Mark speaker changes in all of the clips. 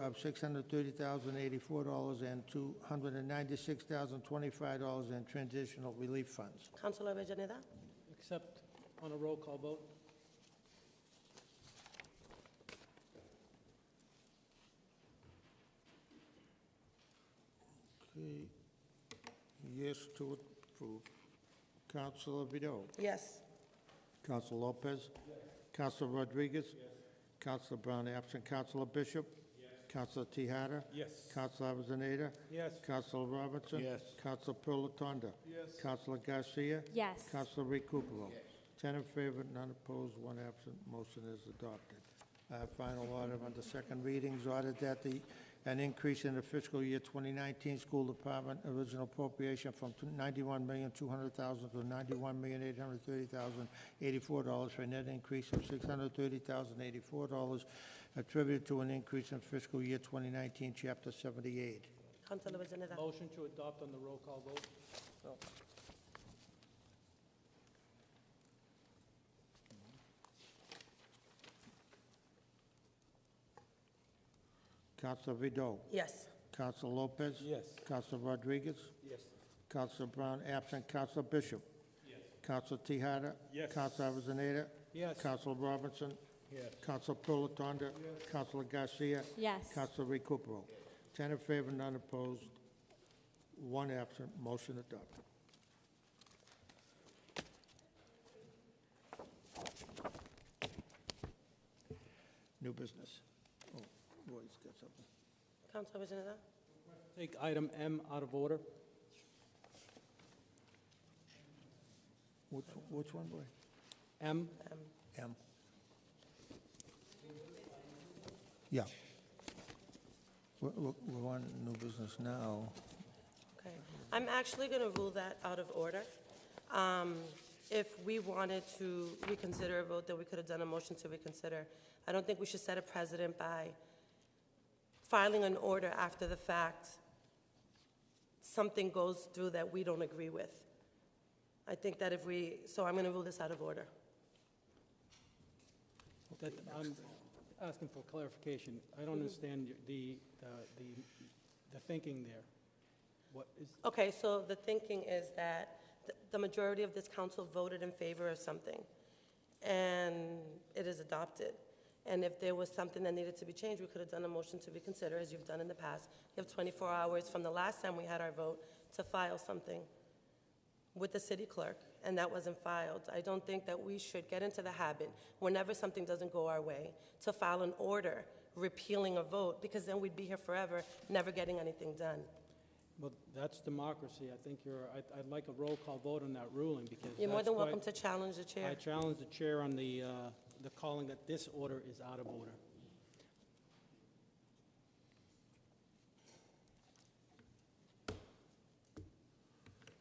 Speaker 1: of $630,084 and $296,025 in transitional relief funds.
Speaker 2: Councilor Avellaneda?
Speaker 3: Accept on a roll call vote.
Speaker 1: Okay. Yes to approve. Counselor Vidal.
Speaker 2: Yes.
Speaker 1: Counselor Lopez. Counselor Rodriguez. Counselor Brown absent. Counselor Bishop. Counselor Tahada.
Speaker 3: Yes.
Speaker 1: Counselor Avellaneda.
Speaker 3: Yes.
Speaker 1: Counselor Robinson.
Speaker 4: Yes.
Speaker 1: Counselor Pilatanda.
Speaker 3: Yes.
Speaker 1: Counselor Garcia.
Speaker 5: Yes.
Speaker 1: Counselor Recupero. Ten in favor, none opposed, one absent. Motion is adopted. Our final order on the second readings, order that the, an increase in the fiscal year 2019 school department original appropriation from $91,200,000 to $91,830,084 for a net increase of $630,084 attributed to an increase in fiscal year 2019, Chapter 78.
Speaker 2: Councilor Avellaneda?
Speaker 3: Motion to adopt on the roll call vote.
Speaker 1: Counselor Vidal.
Speaker 2: Yes.
Speaker 1: Counselor Lopez.
Speaker 3: Yes.
Speaker 1: Counselor Rodriguez.
Speaker 3: Yes.
Speaker 1: Counselor Brown absent. Counselor Bishop.
Speaker 3: Yes.
Speaker 1: Counselor Tahada.
Speaker 3: Yes.
Speaker 1: Counselor Avellaneda.
Speaker 3: Yes.
Speaker 1: Counselor Robinson.
Speaker 3: Yes.
Speaker 1: Counselor Pilatanda. Counselor Garcia.
Speaker 5: Yes.
Speaker 1: Counselor Recupero. Ten in favor, none opposed, one absent. Motion adopted. New business. Oh, Roy's got something.
Speaker 2: Councilor Avellaneda?
Speaker 3: Take item M out of order.
Speaker 1: Which, which one, Roy?
Speaker 3: M,
Speaker 2: Um,
Speaker 1: M. Yeah. We're, we're- we're on new business now.
Speaker 2: Okay. I'm actually going to rule that out of order. Um, If we wanted to reconsider a vote, then we could have done a motion to reconsider. I don't think we should set a precedent by filing an order after the fact. Something goes through that we don't agree with. I think that if we, so I'm going to rule this out of order.
Speaker 3: that, I'm asking for clarification. I don't understand y- the, the- the, the thinking there. What is,
Speaker 2: Okay, so the thinking is that th- the majority of this council voted in favor of something, and it is adopted. And if there was something that needed to be changed, we could have done a motion to reconsider, as you've done in the past. You have 24 hours from the last time we had our vote to file something with the city clerk, and that wasn't filed. I don't think that we should get into the habit, whenever something doesn't go our way, to file an order repealing a vote, because then we'd be here forever, never getting anything done.
Speaker 3: well, that's democracy. I think you're, I'd, I'd like a roll call vote on that ruling because
Speaker 2: You're more
Speaker 3: that's
Speaker 2: than
Speaker 3: quite-
Speaker 2: welcome to challenge the chair.
Speaker 3: I challenge the chair on the, uh, the calling that this order is out of order.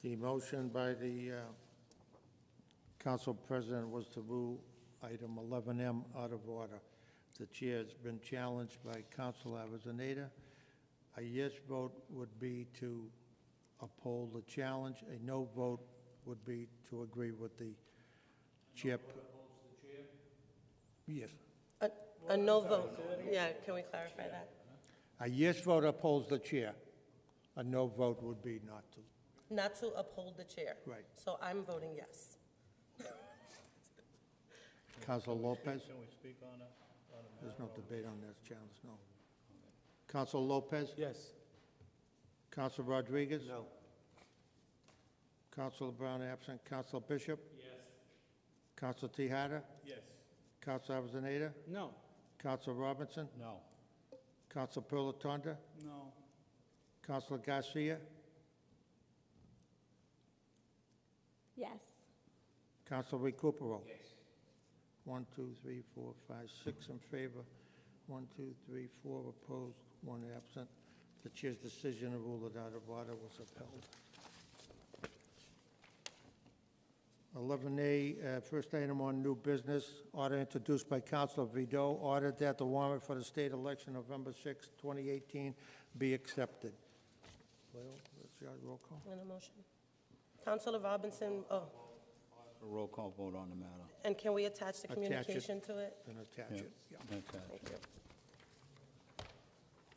Speaker 1: The motion by the uh, council president was to rule item 11M out of order. The chair has been challenged by Council Avellaneda. A yes vote would be to uphold the challenge. A no vote would be to agree with the chair. Yes.
Speaker 2: A- A no vote, yeah, can we clarify that?
Speaker 1: A yes vote upholds the chair. A no vote would be not to.
Speaker 2: Not to uphold the chair.
Speaker 1: Right.
Speaker 2: So I'm voting yes.
Speaker 1: Council Lopez?
Speaker 4: Can we speak on it?
Speaker 1: There's no debate on this challenge, no. Council Lopez?
Speaker 3: Yes.
Speaker 1: Council Rodriguez? No. Council Brown absent. Council Bishop? Yes. Council Tahada? Yes. Council Avellaneda?
Speaker 3: No.
Speaker 1: Council Robinson?
Speaker 4: No.
Speaker 1: Council Pilatanda?
Speaker 3: No.
Speaker 1: Council Garcia?
Speaker 5: Yes.
Speaker 1: Council Recupero? Yes. One, two, three, four, five, six in favor, one, two, three, four opposed, one absent. The chair's decision to rule it out of order was upheld. 11A, uh, first item on new business, order introduced by Councilor Vido, order that the warrant for the state election November 6, 2018 be accepted. Well, that's your roll call.
Speaker 2: On a motion. Counselor Robinson, oh,
Speaker 4: A roll call vote on the matter.
Speaker 2: and can we attach the
Speaker 1: Attach it.
Speaker 2: communication to it?
Speaker 1: Then attach it.
Speaker 4: Yeah, that's it.
Speaker 2: Thank you.